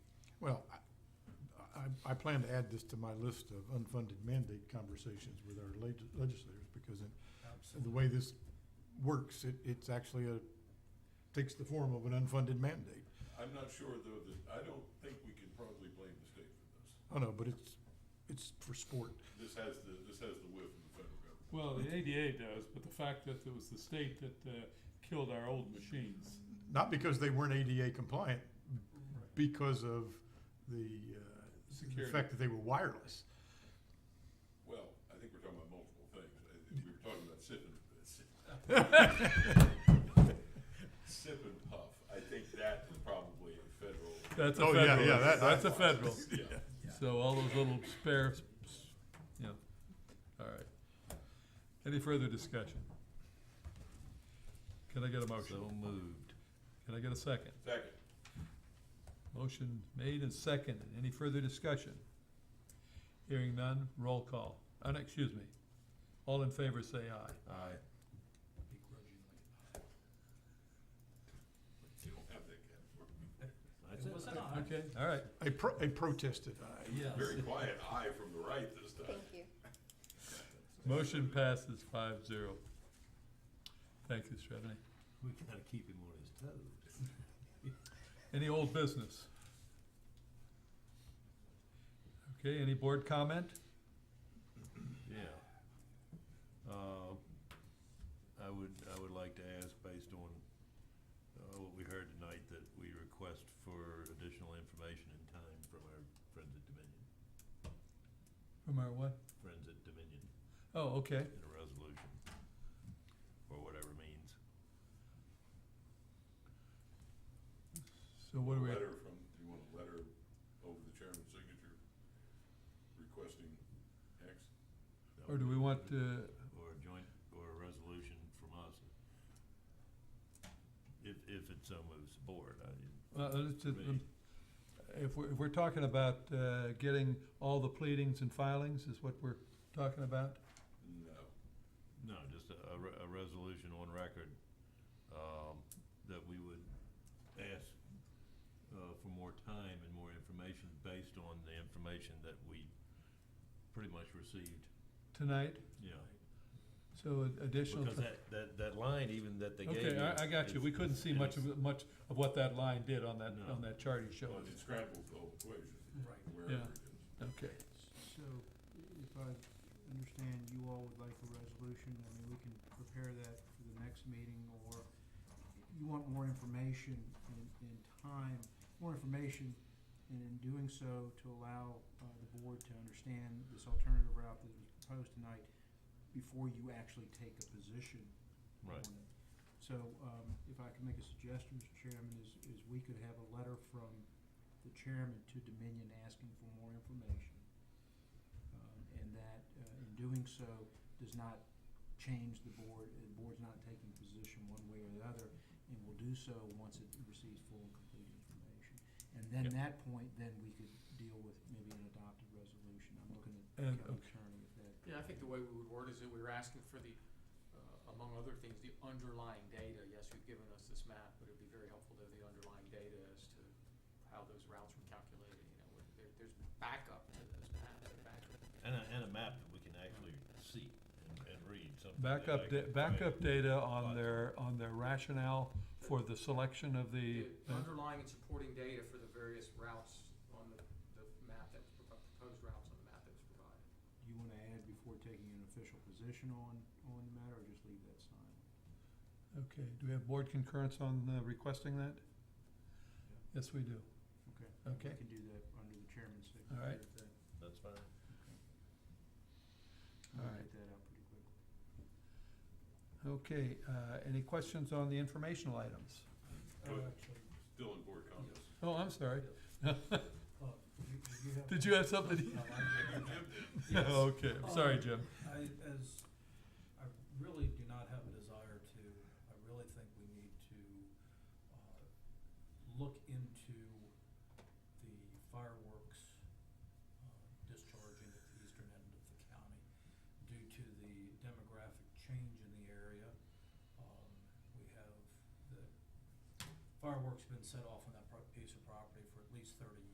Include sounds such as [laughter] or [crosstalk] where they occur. I plan to add this to my list of unfunded mandate conversations with our leg- legislators, because in the way this works, it, it's actually a, takes the form of an unfunded mandate. I'm not sure though that, I don't think we can probably blame the state for this. I know, but it's, it's for sport. This has the, this has the whiff of the federal government. Well, the ADA does, but the fact that it was the state that uh, killed our old machines. Not because they weren't ADA compliant, because of the, uh, the Security. fact that they were wireless. Well, I think we're talking about multiple things. I think We were talking about sip and, sip and puff. I think that is probably a federal. That's Oh, a yeah, federal. yeah, that- That's a that- federal. [laughs] Yeah. So all those little spare, s- s- yeah, all right. Any further discussion? Can I get a motion? So moved. Can I get a second? Second, Motion made and seconded. Any further discussion? Hearing none, roll call. Uh, no, excuse me. All in favor, say aye. Aye. you don't have that category. That's it. Okay, all right. A pro, a protested uh, aye. Very quiet eye from the right this time. Thank you. Motion passes five zero. Thank you, Stephanie. We gotta keep him on his toes. Any old business? Okay, any board comment? Yeah. Uh, I would, I would like to ask, based on, uh, what we heard tonight, that we request for additional information and time from our friends at Dominion, From our what? friends at Dominion Oh, okay. in a resolution, or whatever means. So what do we, Letter from, do you want a letter over the chairman's signature requesting X? That or would do we be want, good. uh, Or a joint, or a resolution from us. If, if it so moves the board, I, uh, let's just, Me. um, if we're, if we're talking about, uh, getting all the pleadings and filings is what we're talking about? No, No. just a, a re- a resolution on record, um, that we would ask, uh, for more time and more information based on the information that we pretty much received, Tonight? yeah. So ad- additional. Because that, that, that line even that they gave Okay, I, I got you. We couldn't see much of, it. it- much of what that line did on that, No. on that chart he showed Well, us. it scrambled the whole equation, Right. wherever it is. Okay. So, if I understand, you all would like a resolution, I mean, we can prepare that for the next meeting, or you want more information in, in time, more information, and in doing so, to allow, uh, the board to understand this alternative route that was proposed tonight before you actually take a position on Right. it. So, um, if I can make a suggestion, Mr. Chairman, is, is we could have a letter from the chairman to Dominion asking for more information. Um, and that, uh, in doing so, does not change the board, the board's not taking position one way or the other, and will do so once it receives full and complete information. And then Yep. that point, then we could deal with maybe an adopted resolution, I'm looking at And, county uh, okay. attorney if that. Yeah, I think the way we would word is that we were asking for the, uh, among other things, the underlying data. Yes, you've given us this map, but it'd be very helpful to have the underlying data as to how those routes were calculated, you know, where there, there's backup to those maps, and backup. And a, and a map that we can actually see and, and read something. that I Backup, da- can- backup data Right. on their, on their rationale for the selection of the, The underlying and supporting data for the various routes on the, the map that was propo- proposed routes on the map that was provided. Do you wanna add before taking an official position on, on the matter, or just leave that silent? okay, do we have board concurrence on uh, requesting that? Yes, we do. Okay. Okay. We can do that under the chairman's signature. All right. if that- That's fine. we'll All right. Get that out pretty quickly. Okay, uh, any questions on the informational items? But Still in board comments. Oh, I'm sorry. you have? Did you have something? [laughs] Oh, Okay, I'm sorry, Jim. I, as, I really do not have a desire to, I really think we need to, uh, look into the fireworks, uh, discharging at the eastern end of the county due to the demographic change in the area. Um, we have, the fireworks been set off on that pro- piece of property for at least thirty